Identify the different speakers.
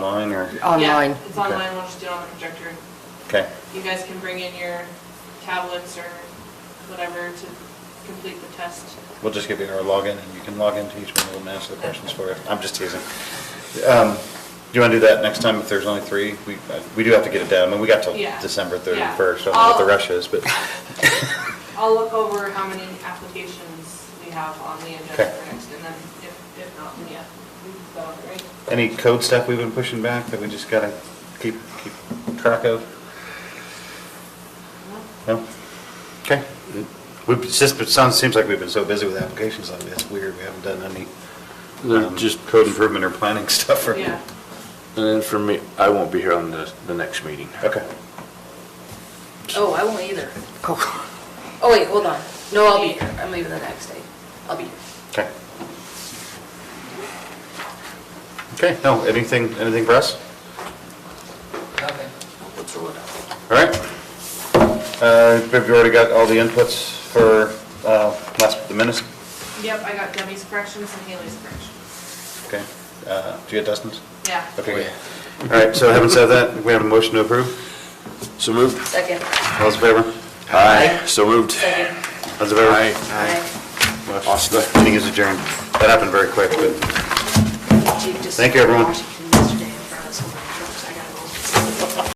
Speaker 1: Online or,
Speaker 2: online.
Speaker 3: Yeah, it's
Speaker 1: Okay.
Speaker 3: online, we'll just do it on the projector.
Speaker 1: okay,
Speaker 3: You guys can bring in your tablets or whatever to complete the test.
Speaker 1: we'll just give you our login and you can log into each one, we'll answer the questions for you. I'm just teasing. Um, Do you want to do that next time if there's only three? We, uh, we do have to get it down, I mean, we got till
Speaker 3: Yeah.
Speaker 1: December
Speaker 3: Yeah.
Speaker 1: 31st, I don't know what the
Speaker 3: I'll-
Speaker 1: rush is, but,
Speaker 3: I'll look over how many applications we have on the agenda
Speaker 1: Okay.
Speaker 3: for next, and then if, if not, then yeah, we've got it right.
Speaker 1: any code stuff we've been pushing back that we just gotta keep, keep track of? No? Okay. We've, it's just, it sounds, seems like we've been so busy with applications lately, that's weird, we haven't done any.
Speaker 4: They're
Speaker 1: um,
Speaker 4: just-
Speaker 1: Code improvement or planning stuff or.
Speaker 3: Yeah,
Speaker 4: And then for me, I won't be here on the, the next meeting.
Speaker 1: Okay.
Speaker 5: Oh, I won't either. Oh, wait, hold on. No, I'll be here. I'm leaving the next day. I'll be here.
Speaker 1: Okay. Okay, no, anything, anything for us? All right. Uh, Have you already got all the inputs for uh, last, the minutes?
Speaker 3: yep, I got Debbie's corrections and Haley's corrections.
Speaker 1: Okay. Uh, Do you get Dustin's?
Speaker 4: Oh,
Speaker 3: Yeah.
Speaker 1: Okay. good. All right, so having said that, we have a motion to approve.
Speaker 4: So moved?
Speaker 5: Second,
Speaker 1: All those in favor?
Speaker 4: Aye. So moved?
Speaker 5: second.
Speaker 1: All those in favor?
Speaker 4: Aye.
Speaker 5: Aye.
Speaker 4: Awesome.
Speaker 1: Meeting is adjourned. That happened very quick, but
Speaker 5: Chief, just-
Speaker 1: Thank you, everyone.